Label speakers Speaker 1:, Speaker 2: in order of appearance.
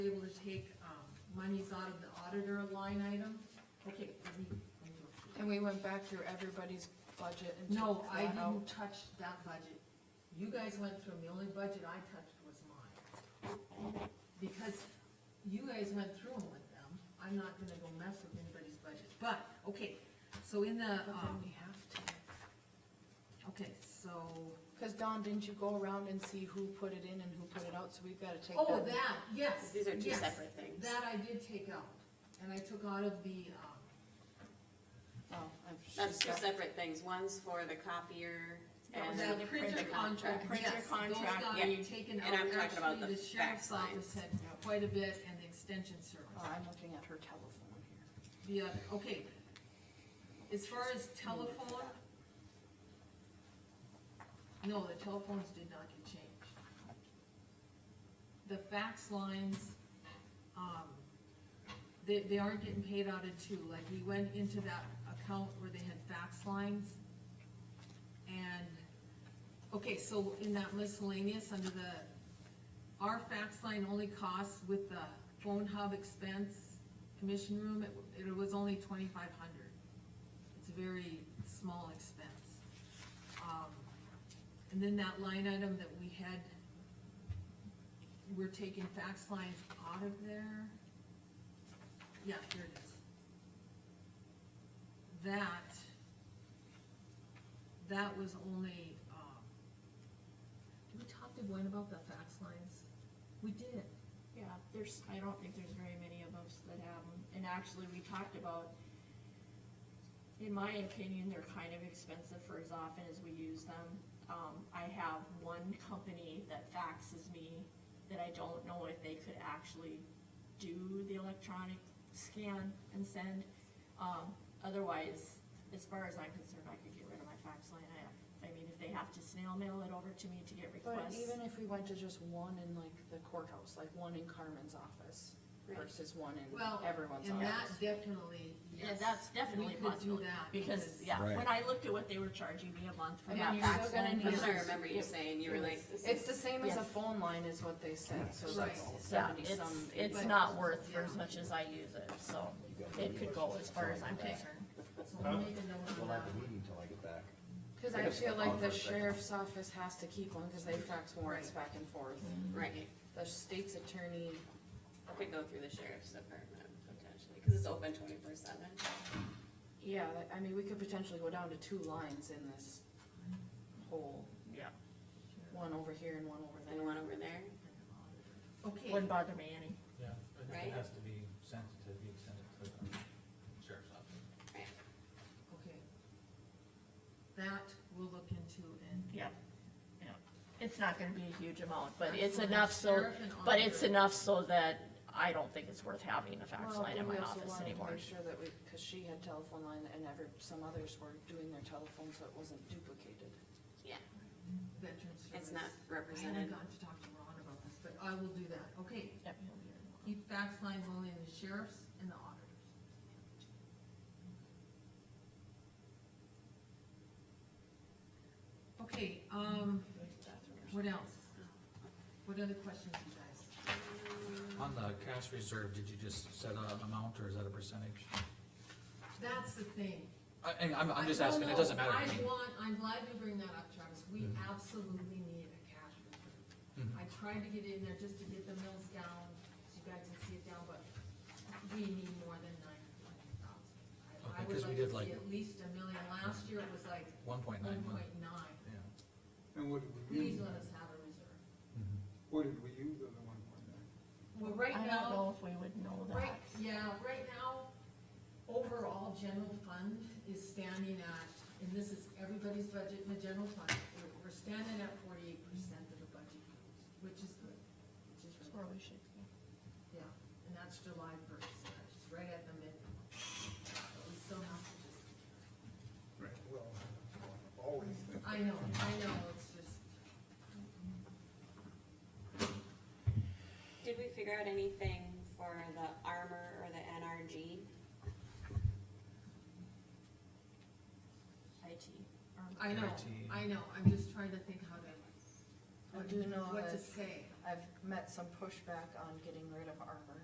Speaker 1: able to take, um, monies out of the auditor line item. Okay, let me, let me look.
Speaker 2: And we went back through everybody's budget and
Speaker 1: No,
Speaker 2: took
Speaker 1: I
Speaker 2: that out.
Speaker 1: didn't touch that budget. You guys went through, 'em. the only budget I touched was mine. Because you guys went through 'em with them, I'm not gonna go mess with anybody's budget, but, okay, so in the,
Speaker 2: But then
Speaker 1: um,
Speaker 2: we have to.
Speaker 1: okay, so.
Speaker 2: Cause Don, didn't you go around and see who put it in and who put it out, so we've gotta take that.
Speaker 1: Oh, that, yes,
Speaker 3: These are two
Speaker 1: yes.
Speaker 3: separate things.
Speaker 1: That I did take out, and I took out of the, um,
Speaker 2: Oh, I'm sure.
Speaker 3: That's two separate things, one's for the copier and
Speaker 1: Oh, That
Speaker 3: the
Speaker 1: printer contract,
Speaker 3: contract.
Speaker 1: yes,
Speaker 2: Printer
Speaker 1: those
Speaker 2: contract,
Speaker 1: got
Speaker 3: yeah.
Speaker 1: taken out,
Speaker 3: And I'm talking about
Speaker 1: actually,
Speaker 3: the
Speaker 1: the sheriff's
Speaker 3: fax
Speaker 1: office
Speaker 3: lines.
Speaker 1: had quite a bit, and the extension service,
Speaker 2: Oh, I'm looking at her telephone here.
Speaker 1: the other, okay. As far as telephone. No, the telephones did not get changed. The fax lines, um, they, they aren't getting paid out of two, like, we went into that account where they had fax lines. And, okay, so in that miscellaneous, under the, our fax line only costs with the phone hub expense, commission room, it, it was only twenty-five hundred. It's a very small expense. Um, And then that line item that we had, we're taking fax lines out of there. Yeah, here it is. That, that was only, um, did we talk to Gwen about the fax lines? We did.
Speaker 4: Yeah, there's, I don't think there's very many of us that have them, and actually, we talked about, in my opinion, they're kind of expensive for as often as we use them. Um, I have one company that faxes me that I don't know if they could actually do the electronic scan and send. Um, otherwise, as far as I'm concerned, I could get rid of my fax line, I, I mean, if they have to snail mail it over to me to get
Speaker 2: But
Speaker 4: requests.
Speaker 2: even if we went to just one in like the courthouse, like one in Carmen's office
Speaker 3: Right.
Speaker 2: versus one
Speaker 1: Well,
Speaker 2: in everyone's
Speaker 1: And that
Speaker 2: office.
Speaker 1: definitely,
Speaker 4: Yeah,
Speaker 1: yes.
Speaker 4: that's definitely
Speaker 1: We could do
Speaker 4: possible,
Speaker 1: that.
Speaker 4: because, yeah,
Speaker 5: Right.
Speaker 4: when I looked at what they were charging me a month for
Speaker 2: I
Speaker 4: that
Speaker 2: mean, you're
Speaker 4: fax
Speaker 2: still gonna
Speaker 4: line,
Speaker 2: need.
Speaker 3: That's what I remember you saying, you were like, this
Speaker 2: It's
Speaker 3: is,
Speaker 2: the same as a
Speaker 4: Yeah.
Speaker 2: phone line is what they said, so
Speaker 1: Right.
Speaker 2: that's
Speaker 4: yeah,
Speaker 2: seventy
Speaker 4: it's,
Speaker 2: some.
Speaker 4: it's
Speaker 1: but-
Speaker 4: not worth for as
Speaker 1: yeah.
Speaker 4: much as I use it, so it could go as far as I'm concerned.
Speaker 1: So we'll make a note on
Speaker 5: We'll
Speaker 1: that.
Speaker 5: have the meeting till I get back.
Speaker 2: Cause
Speaker 5: I
Speaker 2: I
Speaker 5: guess
Speaker 2: feel
Speaker 5: I'll
Speaker 2: like
Speaker 5: pause
Speaker 2: the
Speaker 5: for a second.
Speaker 2: sheriff's office has to keep one, cause they fax warrants back and forth.
Speaker 3: right,
Speaker 2: The state's attorney,
Speaker 3: I could go through the sheriff's department potentially, cause it's open twenty-four seven.
Speaker 2: yeah, that- I mean, we could potentially go down to two lines in this whole,
Speaker 4: Yeah.
Speaker 2: one over here and one over
Speaker 3: And
Speaker 2: there.
Speaker 3: one over there,
Speaker 1: Okay,
Speaker 4: Wouldn't bother me any.
Speaker 6: Yeah, I think
Speaker 3: Right?
Speaker 6: it has to be sent to, be extended to the sheriff's office.
Speaker 3: right,
Speaker 1: okay. That we'll look into and.
Speaker 4: Yeah, yeah. It's not gonna be a huge amount, but it's
Speaker 1: Actually,
Speaker 4: enough so,
Speaker 1: sheriff and
Speaker 4: but it's
Speaker 1: auditor.
Speaker 4: enough so that I don't think it's worth having a fax
Speaker 2: Well,
Speaker 4: line in
Speaker 2: we
Speaker 4: my
Speaker 2: also
Speaker 4: office
Speaker 2: wanted to
Speaker 4: anymore.
Speaker 2: Make sure that we, cause she had telephone line and ever, some others were doing their telephone, so it wasn't duplicated.
Speaker 3: yeah,
Speaker 1: Veteran service.
Speaker 3: it's
Speaker 1: I
Speaker 3: not
Speaker 1: haven't
Speaker 3: represented,
Speaker 1: gotten to talk to Ron about this, but I will do that, okay.
Speaker 4: Yep.
Speaker 1: Keep fax lines only in the sheriff's and the auditors. Okay, um, what else? What other questions you guys?
Speaker 6: On the cash reserve, did you just set an amount or is that a percentage?
Speaker 1: That's the thing.
Speaker 6: I, and I'm, I'm just
Speaker 1: I- no,
Speaker 6: asking, it doesn't
Speaker 1: no,
Speaker 6: matter to
Speaker 1: I
Speaker 6: me.
Speaker 1: want, I'm glad you bring that up, Travis, we
Speaker 6: Mm-hmm.
Speaker 1: absolutely need a cash reserve.
Speaker 6: Mhm.
Speaker 1: I tried to get in there just to get the mills down, so you guys can see it down, but we need more than nine hundred thousand. I
Speaker 6: Okay,
Speaker 1: would
Speaker 6: 'cause we
Speaker 1: like
Speaker 6: did
Speaker 1: to
Speaker 6: like-
Speaker 1: see at least a million, last year it was like
Speaker 6: One point
Speaker 1: one
Speaker 6: nine Mm-hmm. one,
Speaker 1: point nine,
Speaker 6: yeah.
Speaker 7: And what did we
Speaker 1: please
Speaker 7: use,
Speaker 1: let us have a reserve.
Speaker 7: what did we use on the one point nine?
Speaker 1: Well, right
Speaker 4: I
Speaker 1: now.
Speaker 4: don't know if we would know
Speaker 1: Right,
Speaker 4: that.
Speaker 1: yeah, right now, overall general fund is standing at, and this is everybody's budget in the general fund, we're, we're standing at forty-eight percent of the budget, which is good, which is
Speaker 4: That's
Speaker 1: really,
Speaker 4: where we should be.
Speaker 1: yeah, and that's July first, that's right at the mid. But we still have to just,
Speaker 7: Well, always.
Speaker 1: I know, I know, it's just,
Speaker 3: did we figure out anything for the armor or the NRG?
Speaker 4: IT.
Speaker 1: I know,
Speaker 4: Um,
Speaker 6: IT.
Speaker 1: I know, I'm just trying to think how to.
Speaker 2: I do know
Speaker 1: What to
Speaker 2: that-
Speaker 1: say.
Speaker 2: I've met some pushback on getting rid of ARPA